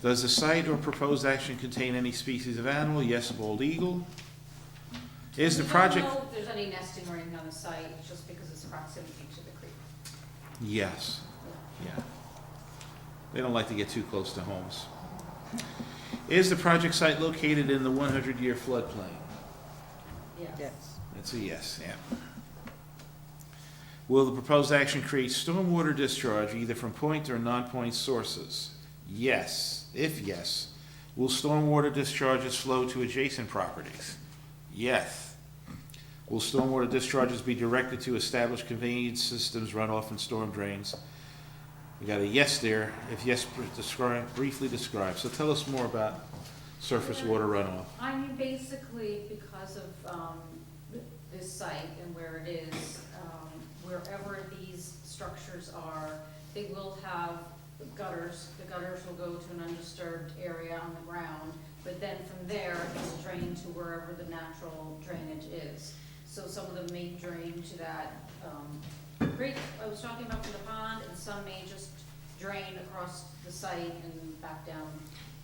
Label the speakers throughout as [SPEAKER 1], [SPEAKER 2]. [SPEAKER 1] Does the site or proposed action contain any species of animal? Yes, bald eagle. Is the
[SPEAKER 2] I don't
[SPEAKER 1] project,
[SPEAKER 2] know if there's any nesting or anything on the site, just because it's proximity to the creek.
[SPEAKER 1] yes, yeah. They don't like to get too close to homes. Is the project site located in the one hundred year floodplain?
[SPEAKER 2] Yes.
[SPEAKER 3] Yes.
[SPEAKER 1] That's a yes, yeah. Will the proposed action create stormwater discharge either from point or non-point sources? Yes. If yes, will stormwater discharges flow to adjacent properties? Yes. Will stormwater discharges be directed to established conveyance systems, runoff and storm drains? We got a yes there. If yes, br- describe, briefly describe. So tell us more about surface water runoff.
[SPEAKER 2] I mean, basically, because of, um, this site and where it is, um, wherever these structures are, they will have gutters, the gutters will go to an undisturbed area on the ground, but then from there, it's drained to wherever the natural drainage is. So some of them may drain to that, um, creek I was talking about from the pond, and some may just drain across the site and back down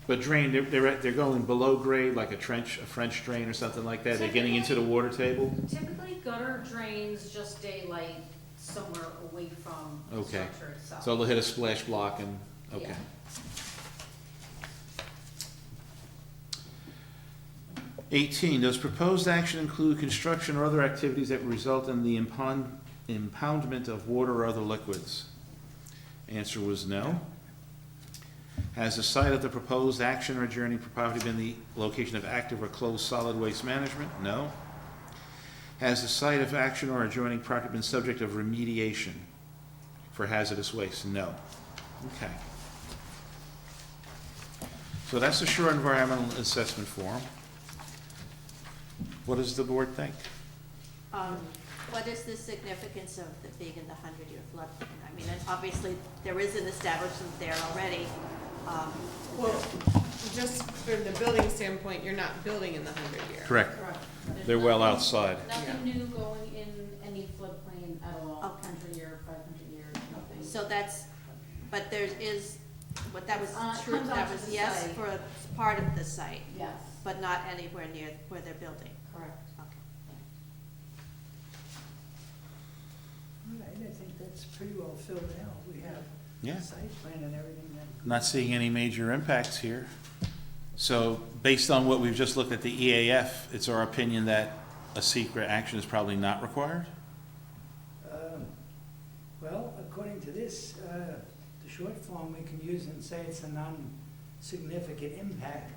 [SPEAKER 1] But drain, they're, they're, at- they're going below grade, like a trench, a French drain or something like that, they're getting into the water table?
[SPEAKER 2] Typically gutter drains just daylight somewhere away from the
[SPEAKER 1] Okay.
[SPEAKER 2] structure itself.
[SPEAKER 1] So they'll hit a splash block and, okay.
[SPEAKER 2] Yeah.
[SPEAKER 1] Eighteen, does proposed action include construction or other activities that result in the impound, impoundment of water or other liquids? Answer was no. Has the site of the proposed action or adjourning property been the location of active or closed solid waste management? No. Has the site of action or adjoining property been subject of remediation for hazardous waste? No. Okay. So that's the Shore Environmental Assessment Form. What does the board think?
[SPEAKER 3] Um, What is the significance of the big and the hundred-year flood? I mean, and obviously, there is an establishment there already. Um,
[SPEAKER 4] Well, just from the building standpoint, you're not building in the hundred year.
[SPEAKER 1] Correct.
[SPEAKER 2] Correct. There's
[SPEAKER 1] They're well
[SPEAKER 2] nothing-
[SPEAKER 1] outside.
[SPEAKER 2] Nothing new going in any floodplain at all,
[SPEAKER 3] Okay.
[SPEAKER 2] hundred year, five hundred year, nothing.
[SPEAKER 3] So that's, but there is, what that was
[SPEAKER 2] It's on- Uh, it
[SPEAKER 3] true,
[SPEAKER 2] comes
[SPEAKER 3] that
[SPEAKER 2] onto
[SPEAKER 3] was
[SPEAKER 2] the
[SPEAKER 3] yes
[SPEAKER 2] site.
[SPEAKER 3] for a part of the site,
[SPEAKER 2] Yes,
[SPEAKER 3] but not anywhere near where they're building.
[SPEAKER 2] correct.
[SPEAKER 3] Okay.
[SPEAKER 5] All right, I think that's pretty well filled out. We have
[SPEAKER 1] Yeah.
[SPEAKER 5] site plan and everything that.
[SPEAKER 1] Not seeing any major impacts here. So based on what we've just looked at the EAF, it's our opinion that a secret action is probably not required?
[SPEAKER 5] Um, Well, according to this, uh, the short form we can use and say it's a non-significant impact,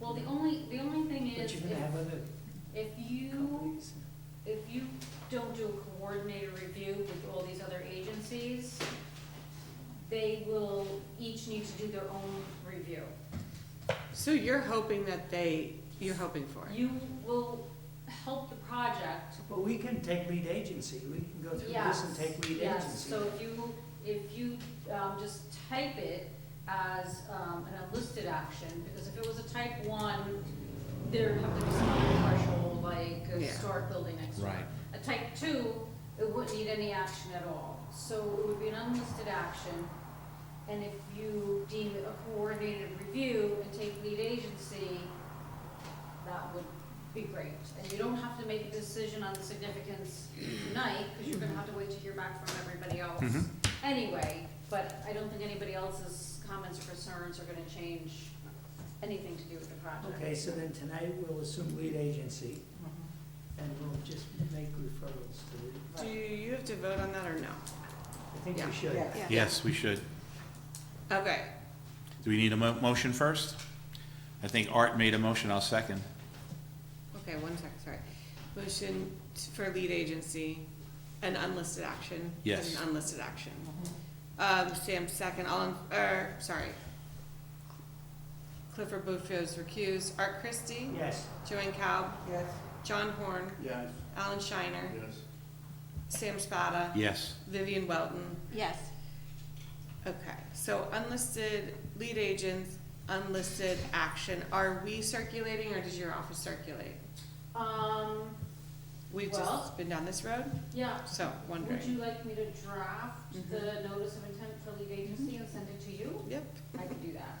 [SPEAKER 2] Well, the only, the only thing
[SPEAKER 5] but
[SPEAKER 2] is,
[SPEAKER 5] you're gonna have
[SPEAKER 2] if,
[SPEAKER 5] other
[SPEAKER 2] if you,
[SPEAKER 5] companies.
[SPEAKER 2] if you don't do a coordinated review with all these other agencies, they will each need to do their own review.
[SPEAKER 4] So you're hoping that they, you're hoping for it?
[SPEAKER 2] You will help the project
[SPEAKER 5] But we can take lead agency. We can go through this
[SPEAKER 2] Yes,
[SPEAKER 5] and take lead
[SPEAKER 2] yes,
[SPEAKER 5] agency.
[SPEAKER 2] so if you, if you, um, just type it as, um, an unlisted action, because if it was a type one, there'd have to be some other threshold, like a
[SPEAKER 4] Yeah.
[SPEAKER 2] historic building next door.
[SPEAKER 1] Right.
[SPEAKER 2] A type two, it wouldn't need any action at all, so it would be an unlisted action, and if you deem it a coordinated review and take lead agency, that would be great. And you don't have to make a decision on the significance tonight, because you're gonna have to wait to hear back from everybody else
[SPEAKER 1] Mhm.
[SPEAKER 2] anyway. But I don't think anybody else's comments or concerns are gonna change anything to do with the project.
[SPEAKER 5] Okay, so then tonight we'll assume lead agency
[SPEAKER 2] Mm-hmm.
[SPEAKER 5] and we'll just make referrals to it.
[SPEAKER 4] Do you have to vote on that or no?
[SPEAKER 5] I think
[SPEAKER 4] Yeah.
[SPEAKER 5] we should.
[SPEAKER 3] Yeah.
[SPEAKER 1] Yes, we should.
[SPEAKER 4] Okay,
[SPEAKER 1] Do we need a mo- motion first? I think Art made a motion, I'll second.
[SPEAKER 4] okay, one second, sorry. Motion t- for lead agency, an unlisted action.
[SPEAKER 1] Yes.
[SPEAKER 4] An unlisted action. Um, Sam second, all in, er, sorry. Clifford Bufo's recused, Art Christie,
[SPEAKER 5] Yes.
[SPEAKER 4] Joanne Cowell,
[SPEAKER 3] Yes.
[SPEAKER 4] John Horn,
[SPEAKER 6] Yes.
[SPEAKER 4] Alan Shiner,
[SPEAKER 6] Yes.
[SPEAKER 4] Sam Spada,
[SPEAKER 1] Yes.
[SPEAKER 4] Vivian Welton,
[SPEAKER 3] Yes,
[SPEAKER 4] Okay, so unlisted lead agents, unlisted action, are we circulating or does your office circulate?
[SPEAKER 2] Um,
[SPEAKER 4] We've
[SPEAKER 2] Well-
[SPEAKER 4] just been down this road,
[SPEAKER 2] yeah,
[SPEAKER 4] so
[SPEAKER 2] would you
[SPEAKER 4] wondering.
[SPEAKER 2] like me to
[SPEAKER 5] Mm-hmm.
[SPEAKER 2] draft the notice of intent for lead agency and send it to you?
[SPEAKER 4] Yep.
[SPEAKER 2] I can do that.